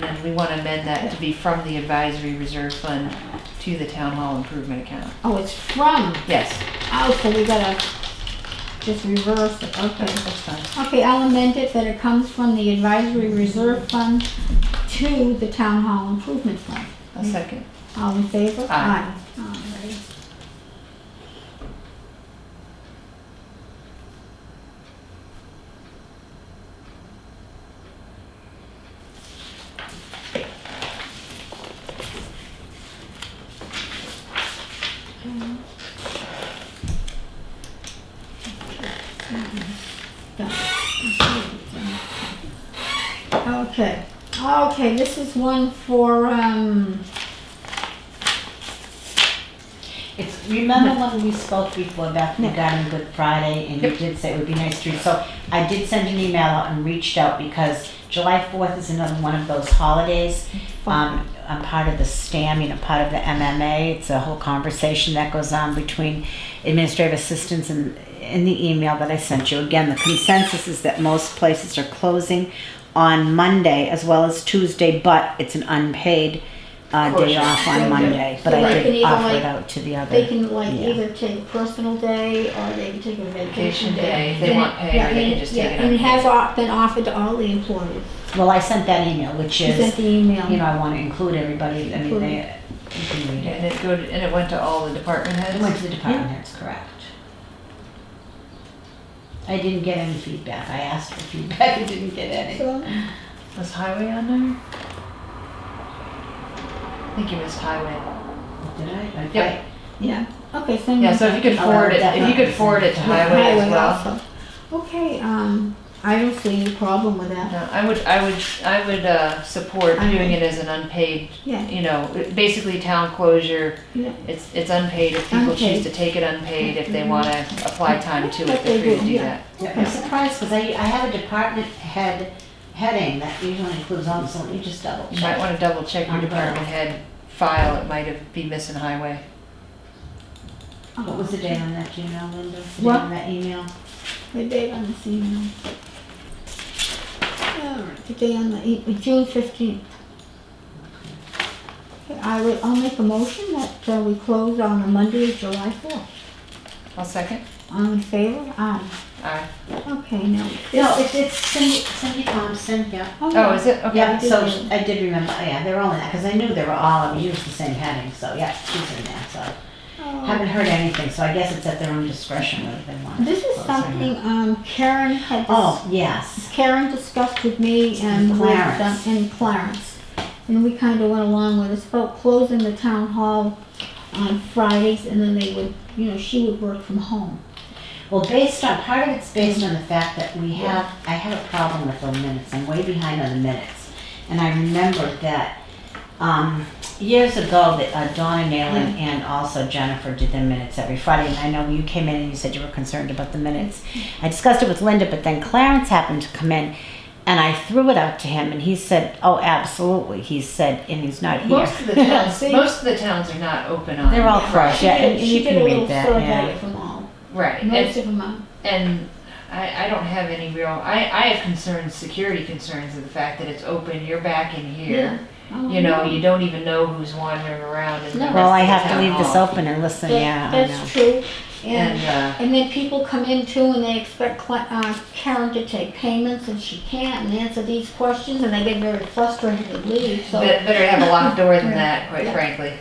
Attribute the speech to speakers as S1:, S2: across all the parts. S1: And then we want to amend that to be from the advisory reserve fund to the town hall improvement account.
S2: Oh, it's from.
S1: Yes,
S2: Oh, so we gotta just reverse it. Okay.
S1: that's fine.
S2: Okay, I'll amend it that it comes from the advisory reserve fund to the town hall improvement fund.
S1: A second.
S2: All in favor?
S1: Aye.
S2: Aye. Alright. Okay, okay, this is one for, um,
S3: It's, remember when we spoke before back regarding Good Friday and you
S1: Yep.
S3: did say it would be nice to read? So I did send an email out and reached out because July fourth is another one of those holidays. Um, I'm part of the STAM, you know, part of the MMA. It's a whole conversation that goes on between administrative assistants and in the email that I sent you. Again, the consensus is that most places are closing on Monday as well as Tuesday, but it's an unpaid uh, day off on Monday. But
S2: So
S3: I
S2: they can
S3: did
S2: either,
S3: offer it
S2: like,
S3: out to the other.
S2: They can like
S3: Yeah.
S2: either take a personal day or they can take a
S1: Vacation
S2: vacation day.
S1: day, they
S2: And
S1: want
S2: it-
S1: pay or
S2: yeah,
S1: they
S2: and
S1: can
S2: it-
S1: just
S2: yeah,
S1: take it
S2: And it
S1: unpaid.
S2: has o- been offered to all the employees.
S3: Well, I sent that email, which
S2: She sent
S3: is,
S2: the email.
S3: you know, I want to include everybody, I mean, they, you can read it.
S1: And it go, to- and it went to all the department
S3: It went to
S1: heads?
S3: the department heads, correct. I didn't get any feedback, I asked for feedback, I didn't get any.
S2: So,
S1: Was highway on there? I think you missed highway.
S3: Did I? Okay.
S1: Yep.
S2: Yeah, okay, send
S1: Yeah,
S2: me
S1: so if you could forward it, if you could forward it to
S2: the
S1: highway as well.
S2: also. Okay, um, I don't see any problem with that.
S1: No, I would, I would, I would, uh, support
S2: I
S1: doing
S2: mean-
S1: it as an unpaid,
S2: Yeah,
S1: you know, basically town closure.
S2: yeah.
S1: It's, it's unpaid if people choose
S2: Unpaid. Mm-hmm.
S1: to take it unpaid, if they wanna apply time to it,
S2: But
S1: they're
S2: they
S1: free to
S2: do,
S1: do
S2: yeah.
S1: that.
S3: Yeah, I'm surprised, because I, I have a department head heading that usually includes all, so let me just double
S1: You might
S3: check.
S1: wanna double check your department head file, it might have, be missing highway.
S3: What was the date on that, do you know, Linda? The date
S2: What?
S3: On that email?
S2: The date on this email. Alright, the day on the, e- June fifteenth. I will, I'll make a motion that uh, we close on a Monday, July fourth.
S1: I'll second.
S2: All in favor? Aye.
S1: Aye.
S2: Okay, now.
S3: No, it's, it's Cindy, Cindy Thompson, yeah.
S1: Oh, is it?
S3: Yeah,
S1: Okay.
S3: so sh- I did remember, oh, yeah, they were all in that, because I knew they were all, I mean, used the same heading, so yeah, she's in there, so. Haven't heard anything, so I guess it's at their own discretion whether they want.
S2: oh. This is
S3: to close or not.
S2: something um, Karen had, dis-
S3: Oh, yes,
S2: Karen discussed with me and with, um,
S3: Clarence.
S2: and Clarence. And we kind of went along with it, about closing the town hall on Fridays and then they would, you know, she would work from home.
S3: well, based on, part of it's based on the fact that we have, I have a problem with the minutes, I'm way behind on the minutes. And I remembered that, um, years ago, that uh, Donna
S2: Mm-hmm.
S3: Nalen and also Jennifer did the minutes every Friday, and I know you came in and you said you were concerned about the minutes.
S2: Mm-hmm.
S3: I discussed it with Linda, but then Clarence happened to come in, and I threw it out to him, and he said, oh, absolutely, he said, and he's not here.
S1: Most of the towns,
S2: See?
S1: most of the towns are not open on.
S3: They're all crushed,
S2: She
S3: yeah,
S2: did-
S3: and and you can read that,
S2: She did a little survey
S3: yeah.
S2: of them all,
S1: Right, and,
S2: most of them are.
S1: and I, I don't have any real, I, I have concerns, security concerns of the fact that it's open, you're back in here. You
S2: Oh,
S1: know, you don't even know who's wandering around in the
S2: No.
S1: rest of the
S3: Well, I have to
S1: town
S3: leave this
S1: hall.
S3: open and listen,
S2: That-
S3: yeah, I know.
S2: That's true, and,
S1: And, uh,
S2: and then people come in too and they expect Cla- uh, Karen to take payments and she can't and answer these questions and they get very frustrated and leave, so.
S1: bet- better have a locked door than that, quite
S2: Yeah.
S1: frankly.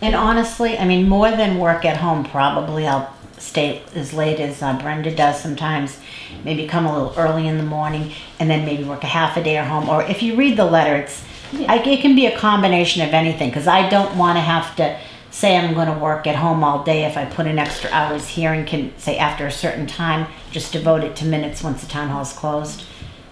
S3: And honestly, I mean, more than work at home, probably I'll stay as late as uh, Brenda does sometimes, maybe come a little early in the morning, and then maybe work a half a day at home, or if you read the letter, it's, I, it can be a combination of anything, because I don't want to have to say I'm going to work at home all day if I put in extra hours here and can say after a certain time, just devote it to minutes once the town hall's closed.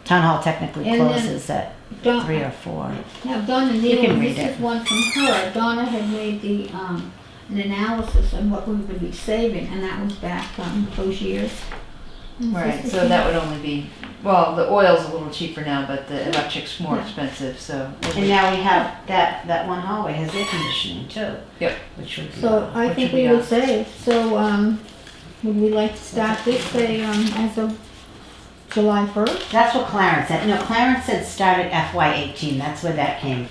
S3: Town hall technically
S2: And then-
S3: closes at
S2: Don-
S3: three or four.
S2: Now Donna Nealon,
S3: can read
S2: this
S3: it.
S2: is one from her, Donna had made the, um, an analysis on what we would be saving and that was back, um, those years. Mm-hmm.
S1: Right, so that would only be, well, the oil's a little cheaper now, but the electric's more
S2: Yeah.
S1: expensive, so.
S3: And now we have that, that one hallway has air conditioning too.
S1: Yep.
S3: Which would be.
S2: So I
S1: What
S2: think
S1: should we
S2: we would
S1: ask?
S2: save, so, um, would we like to start this, say, um, as a July first?
S3: That's what Clarence said. No, Clarence said start at FY eighteen. That's where that came